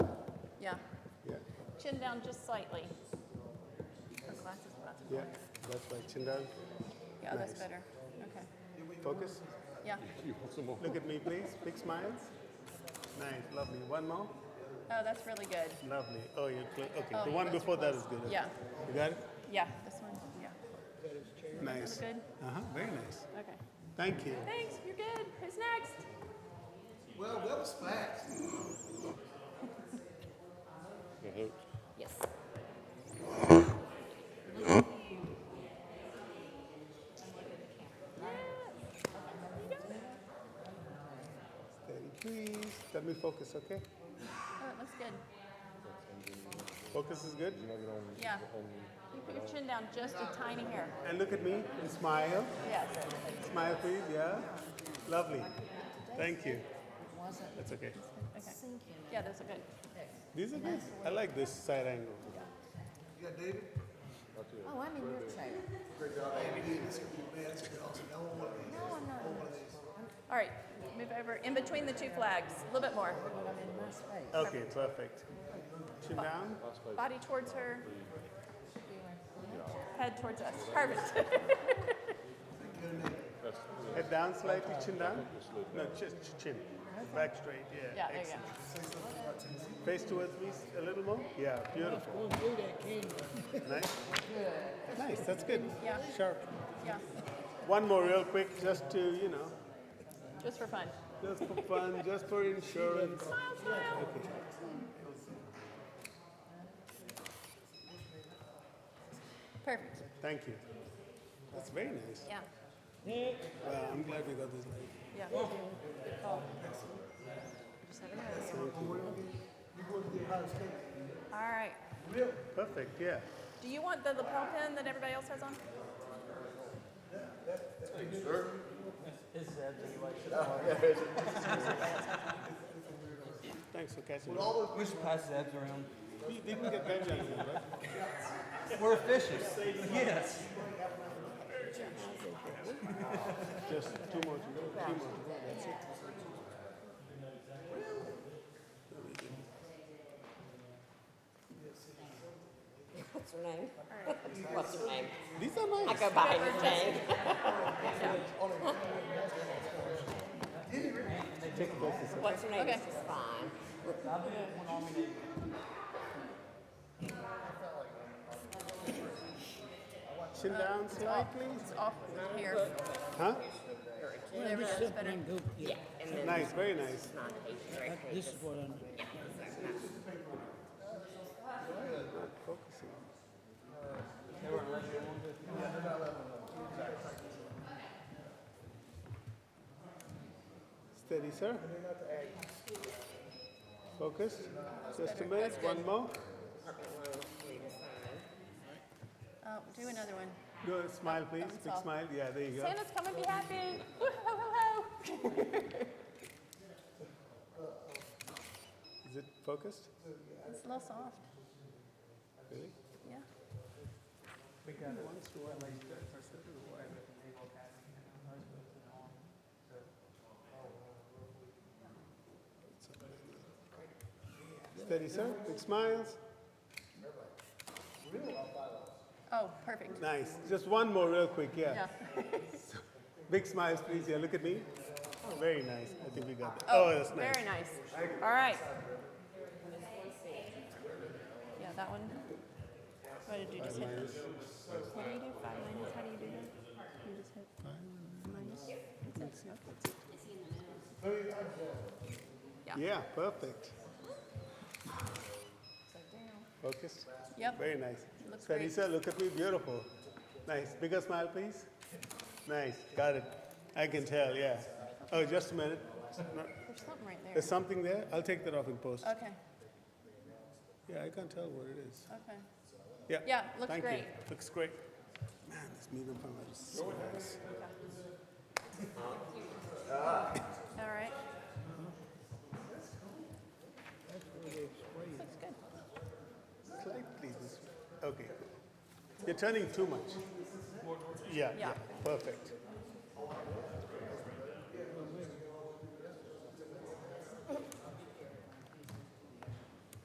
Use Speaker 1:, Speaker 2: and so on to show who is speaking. Speaker 1: Chin down just slightly.
Speaker 2: Oh, glasses, glasses.
Speaker 3: Yeah, that's right. Chin down.
Speaker 2: Yeah, oh, that's
Speaker 3: Nice.
Speaker 2: better. Okay.
Speaker 3: Focus.
Speaker 2: Yeah.
Speaker 4: You want some more?
Speaker 3: Look at me, please. Big smiles. Nice. Lovely. One more.
Speaker 2: Oh, that's really good.
Speaker 3: Lovely. Oh, you're clear. Okay.
Speaker 2: Oh,
Speaker 3: the one
Speaker 2: that's
Speaker 3: before that is good. Okay.
Speaker 2: Yeah.
Speaker 3: You got it?
Speaker 2: Yeah. This one. Yeah.
Speaker 3: Nice.
Speaker 2: Good.
Speaker 3: Uh-huh. Very nice.
Speaker 2: Okay.
Speaker 3: Thank you.
Speaker 2: Thanks. You're good. Who's next?
Speaker 5: Well, that was fast.
Speaker 4: It hurts.
Speaker 1: Yes.
Speaker 3: Steady, please. Let me focus, okay?
Speaker 2: Oh, it looks good.
Speaker 3: Focus is good.
Speaker 2: Yeah.
Speaker 1: You put your chin down just a tiny hair.
Speaker 3: And look at me and smile.
Speaker 1: Yes.
Speaker 3: Smile, please. Yeah. Lovely. Thank you. That's okay.
Speaker 2: Okay. Yeah, those are good.
Speaker 3: These are good. I like this side angle.
Speaker 5: You got David?
Speaker 6: Oh, I'm in your chair.
Speaker 5: Great job. I haven't eaten this in a few minutes, but also, no one wanted to eat.
Speaker 6: No, I'm not in your
Speaker 2: All right. Move over in between the two flags. A little bit more.
Speaker 6: chair. I'm in my space.
Speaker 3: Okay, perfect. Chin down.
Speaker 2: Body towards her. Head towards us. Perfect.
Speaker 3: Head down slightly, chin down. No, chin, chin. Back straight, yeah.
Speaker 2: Yeah. There you
Speaker 3: Excellent.
Speaker 2: go.
Speaker 3: Face towards me s- a little more. Yeah, beautiful. Nice. Nice, that's good.
Speaker 2: Yeah.
Speaker 3: Sharp.
Speaker 2: Yeah.
Speaker 3: One more real quick, just to, you know,
Speaker 2: Just for fun.
Speaker 3: just for fun, just for insurance.
Speaker 2: Smile, smile.
Speaker 3: Okay.
Speaker 2: Perfect.
Speaker 3: Thank you. That's very nice.
Speaker 2: Yeah.
Speaker 3: Well, Uh, I'm glad we got this. lady.
Speaker 2: Yeah. All right.
Speaker 3: Perfect, yeah.
Speaker 2: Do you want the lapel pin that everybody else has on?
Speaker 3: Thanks for catching me.
Speaker 5: All
Speaker 7: We should pass Zebs around.
Speaker 3: We didn't get vengeance, right?
Speaker 7: We're efficient. Yes.
Speaker 3: Just two more to go. Two more to go. That's it.
Speaker 6: What's her name? What's her name?
Speaker 3: These are nice.
Speaker 6: I go by her name. What's her name
Speaker 2: Okay.
Speaker 6: is just fine.
Speaker 3: Chin down slightly.
Speaker 2: It's off the hair.
Speaker 3: Huh?
Speaker 2: Whatever that's better.
Speaker 6: Yeah, and then
Speaker 3: Nice, very nice.
Speaker 6: not eight, right?
Speaker 8: This is what I'm.
Speaker 3: Focusing. Steady, sir. Focus. Just a minute. One more.
Speaker 2: Oh, do another one.
Speaker 3: Go smile, please.
Speaker 2: Thumbs
Speaker 3: Big
Speaker 2: up.
Speaker 3: smile. Yeah, there you go.
Speaker 2: Santa's coming, be happy. Woo, ho, ho, ho.
Speaker 3: Is it focused?
Speaker 2: It's a little soft.
Speaker 3: Really?
Speaker 2: Yeah.
Speaker 3: Steady, sir. Big smiles.
Speaker 2: Oh, perfect.
Speaker 3: Nice. Just one more, real quick. Yeah.
Speaker 2: Yeah.
Speaker 3: Big smiles, please. Yeah, look at me. Oh, very nice. I think we got that.
Speaker 2: Oh,
Speaker 3: oh that's nice.
Speaker 2: Very nice. All right. Yeah, that one. What did you just hit? What do you do? Five minus. How do you do that? You just hit minus. That's it. Okay.
Speaker 3: Yeah, perfect. Focus.
Speaker 2: Yep.
Speaker 3: Very nice.
Speaker 2: Looks
Speaker 3: So,
Speaker 2: great.
Speaker 3: Lisa, look at me. Beautiful. Nice. Bigger smile, please. Nice. Got it. I can tell. Yeah. Oh, just a minute. No,
Speaker 2: There's something right there.
Speaker 3: There's something there. I'll take that off in post.
Speaker 2: Okay.
Speaker 3: Yeah, I can't tell what it is.
Speaker 2: Okay.
Speaker 3: Yeah.
Speaker 2: Yeah, looks
Speaker 3: Thank
Speaker 2: great.
Speaker 3: You. Looks great. Man, this medium palmer is so nice.
Speaker 2: All right. Looks good.
Speaker 3: Slightly this way. Okay. You're turning too much. Yeah, yeah.
Speaker 2: Yeah.
Speaker 3: Perfect.